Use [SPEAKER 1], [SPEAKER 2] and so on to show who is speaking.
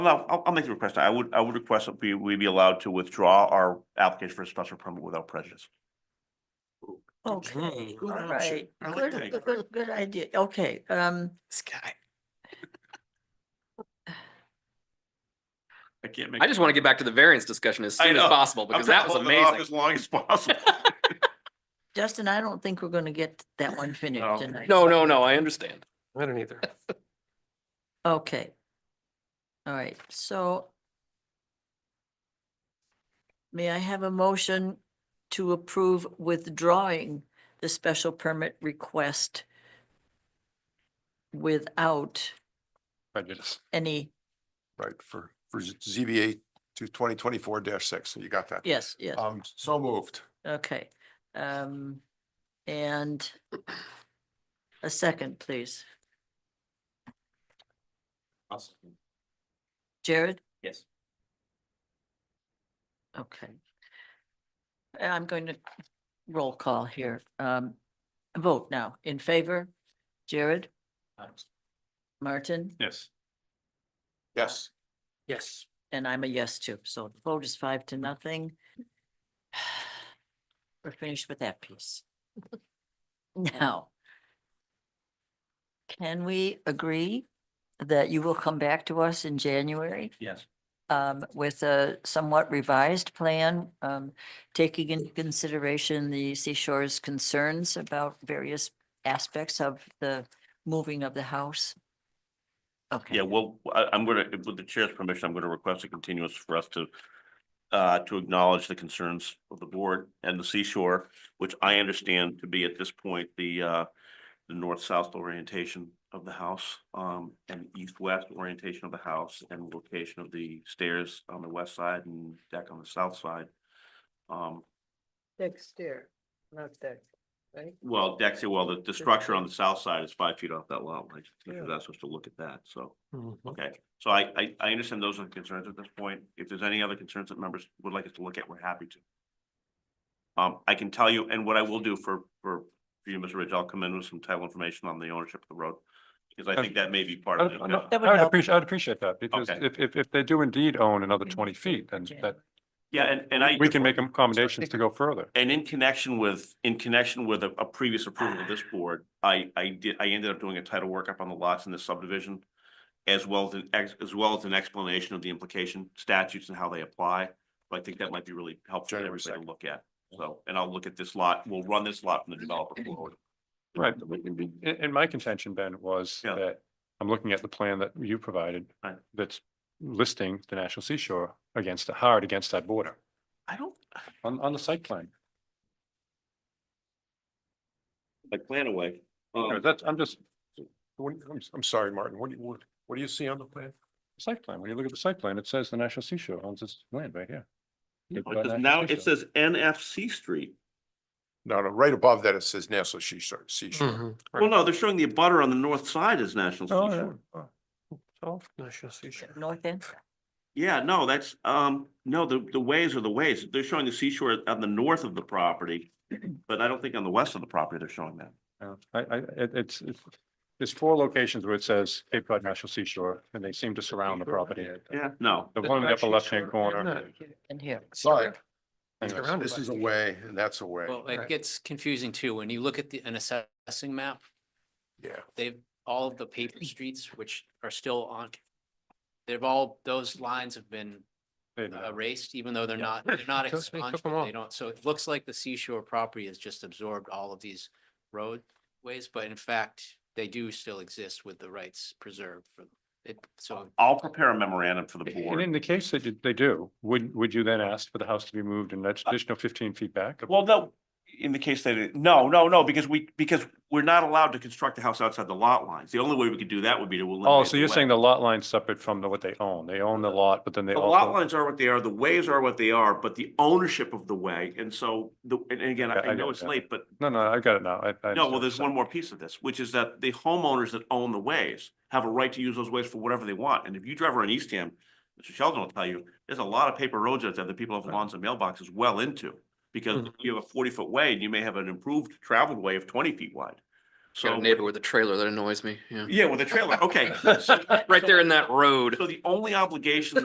[SPEAKER 1] No, I'll, I'll make the request. I would, I would request that we, we be allowed to withdraw our application for a special permit without prejudice.
[SPEAKER 2] Okay,
[SPEAKER 3] Okay,
[SPEAKER 2] all
[SPEAKER 3] good option.
[SPEAKER 2] right.
[SPEAKER 3] Mm-hmm. I like
[SPEAKER 2] Good,
[SPEAKER 3] that.
[SPEAKER 2] good, good, good idea. Okay, um,
[SPEAKER 4] Sky.
[SPEAKER 3] I can't make.
[SPEAKER 4] I just want to get back to the variance discussion as
[SPEAKER 3] I
[SPEAKER 4] soon as
[SPEAKER 3] know.
[SPEAKER 4] possible
[SPEAKER 3] I'm
[SPEAKER 4] because
[SPEAKER 3] trying
[SPEAKER 4] that
[SPEAKER 3] to
[SPEAKER 4] was
[SPEAKER 3] hold it off
[SPEAKER 4] amazing.
[SPEAKER 3] As long as possible.
[SPEAKER 2] Justin, I don't think we're gonna get that one
[SPEAKER 3] No.
[SPEAKER 2] finished tonight.
[SPEAKER 4] No, no, no, I understand.
[SPEAKER 5] I don't either.
[SPEAKER 2] Okay. All right, so may I have a motion to approve withdrawing the special permit request without
[SPEAKER 5] Prejudice.
[SPEAKER 2] any,
[SPEAKER 6] Right, for, for Z- ZBA to twenty twenty-four six, you got that?
[SPEAKER 2] yes, yes.
[SPEAKER 4] Uh.
[SPEAKER 6] Um, so moved.
[SPEAKER 2] Okay, um, and a second, please. Jared?
[SPEAKER 3] Yes.
[SPEAKER 2] Okay. Uh, I'm going to roll call here. Um, vote now. In favor? Jared? Martin?
[SPEAKER 3] Yes.
[SPEAKER 6] Yes.
[SPEAKER 5] Yes.
[SPEAKER 2] And I'm a yes too. So the vote is five to nothing. We're finished with that piece. Now. Can we agree that you will come back to us in January?
[SPEAKER 3] Yes.
[SPEAKER 2] um, with a somewhat revised plan, um, taking into consideration the seashore's concerns about various aspects of the moving of the house? Okay.
[SPEAKER 1] Yeah, well, I, I'm gonna, with the chair's permission, I'm gonna request a continuance for us to uh, to acknowledge the concerns of the board and the seashore, which I understand to be at this point, the uh, the north-south orientation of the house, um, and east-west orientation of the house and location of the stairs on the west side and deck on the south side. Um,
[SPEAKER 7] Deck stair, not deck, right?
[SPEAKER 1] well, deck, well, the, the structure on the south side is five feet off that lot, like,
[SPEAKER 7] Yeah.
[SPEAKER 1] you're not supposed to look at that, so.
[SPEAKER 5] Mm-hmm.
[SPEAKER 1] Okay, so I, I, I understand those are the concerns at this point. If there's any other concerns that members would like us to look at, we're happy to. Um, I can tell you, and what I will do for, for for you, Mr. Ridge, I'll come in with some title information on the ownership of the road. Because I think that may be part
[SPEAKER 5] I
[SPEAKER 1] of
[SPEAKER 5] would
[SPEAKER 1] it.
[SPEAKER 2] help.
[SPEAKER 5] appreciate, I'd appreciate that because
[SPEAKER 1] Okay.
[SPEAKER 5] if, if, if they do indeed own another twenty feet, then that,
[SPEAKER 1] Yeah, and, and I.
[SPEAKER 5] we can make accommodations to go further.
[SPEAKER 1] And in connection with, in connection with a, a previous approval of this board, I, I did, I ended up doing a title workup on the lots in this subdivision. As well as an, ex- as well as an explanation of the implication statutes and how they apply. But I think that might be really helpful for
[SPEAKER 6] January
[SPEAKER 1] everybody to
[SPEAKER 6] 2nd.
[SPEAKER 1] look at. So, and I'll look at this lot, we'll run this lot from the developer forward.
[SPEAKER 5] Right. And, and my contention, Ben, was
[SPEAKER 1] Yeah.
[SPEAKER 5] that I'm looking at the plan that you provided
[SPEAKER 1] Right.
[SPEAKER 5] that's listing the National Seashore against, the hard against that border
[SPEAKER 1] I don't,
[SPEAKER 5] on, on the site plan.
[SPEAKER 1] like plan away.
[SPEAKER 5] You know,
[SPEAKER 1] Um,
[SPEAKER 5] That's, I'm just,
[SPEAKER 6] What, I'm, I'm sorry, Martin, what do you, what, what do you see on the plan?
[SPEAKER 5] site plan, when you look at the site plan, it says the National Seashore owns this land right here. It's by
[SPEAKER 1] it says
[SPEAKER 5] National
[SPEAKER 1] Now, it
[SPEAKER 5] Seashore.
[SPEAKER 1] says NFC Street.
[SPEAKER 6] No, no, right above that, it says Nassau Seashore,
[SPEAKER 4] Hmm.
[SPEAKER 6] Seashore.
[SPEAKER 5] Mhm.
[SPEAKER 1] Well, no, they're showing the abutter on the north side as National
[SPEAKER 5] Oh,
[SPEAKER 1] Seashore.
[SPEAKER 5] yeah.
[SPEAKER 6] Oh, Nassau Seashore.
[SPEAKER 2] North end?
[SPEAKER 1] Yeah, no, that's, um, no, the, the ways are the ways. They're showing the seashore on the north of the property, but I don't think on the west of the property they're showing that.
[SPEAKER 5] Oh, Yeah, I, I, it, it's, it's- there's four locations where it says Cape Cod National Seashore, and they seem to surround the property.
[SPEAKER 1] Yeah, no,
[SPEAKER 5] The one in the upper left-hand corner.
[SPEAKER 2] And here.
[SPEAKER 6] Sorry,
[SPEAKER 5] Anyways.
[SPEAKER 3] around
[SPEAKER 6] this is a way and that's a way.
[SPEAKER 8] Well, it gets confusing too. When you look at the, an assessing map,
[SPEAKER 6] Yeah,
[SPEAKER 8] they've, all of the paper streets, which are still on, they've all, those lines have been
[SPEAKER 5] Wait a minute.
[SPEAKER 8] erased, even though they're
[SPEAKER 5] Yeah.
[SPEAKER 8] not, they're not
[SPEAKER 5] Just- they took
[SPEAKER 8] expunged.
[SPEAKER 5] 'em all.
[SPEAKER 8] They don't, so it looks like the seashore property has just absorbed all of these roadways, but in fact, they do still exist with the rights preserved for it. So
[SPEAKER 1] I'll prepare a memorandum for the
[SPEAKER 5] And in
[SPEAKER 1] board.
[SPEAKER 5] the case that you- they do, would, would you then ask for the house to be moved an additional fifteen feet back?
[SPEAKER 1] Uh, Well, no, in the case that, it- no, no, no, because we, because we're not allowed to construct the house outside the lot lines. The only way we could do that would be to eliminate.
[SPEAKER 5] Oh, so
[SPEAKER 1] the
[SPEAKER 5] you're
[SPEAKER 1] way. Uh,
[SPEAKER 5] saying the lot line's separate from the- what they own. They own the lot, but then they
[SPEAKER 1] The lot
[SPEAKER 5] also.
[SPEAKER 1] lines are what they are, the ways are what they are, but the ownership of the way, and so, the, and and again, I-
[SPEAKER 5] Yeah, I
[SPEAKER 1] I know
[SPEAKER 5] got
[SPEAKER 1] it's
[SPEAKER 5] that.
[SPEAKER 1] late, but
[SPEAKER 5] No, no, I got it now. I- I
[SPEAKER 1] No, well,
[SPEAKER 5] understand.
[SPEAKER 1] there's one more piece of this, which is that the homeowners that own the ways have a right to use those ways for whatever they want. And if you drive around Eastham, Mr. Sheldon will tell you, there's a lot of paper roads out there that people have lawns and mailboxes well into. Because you have a forty foot way and you may have an improved traveled way of twenty feet wide.
[SPEAKER 4] Got
[SPEAKER 1] So,
[SPEAKER 4] a neighbor with a trailer that annoys me, yeah.
[SPEAKER 1] yeah, with a trailer, okay. So-
[SPEAKER 4] Right there in that road.
[SPEAKER 1] So the only obligation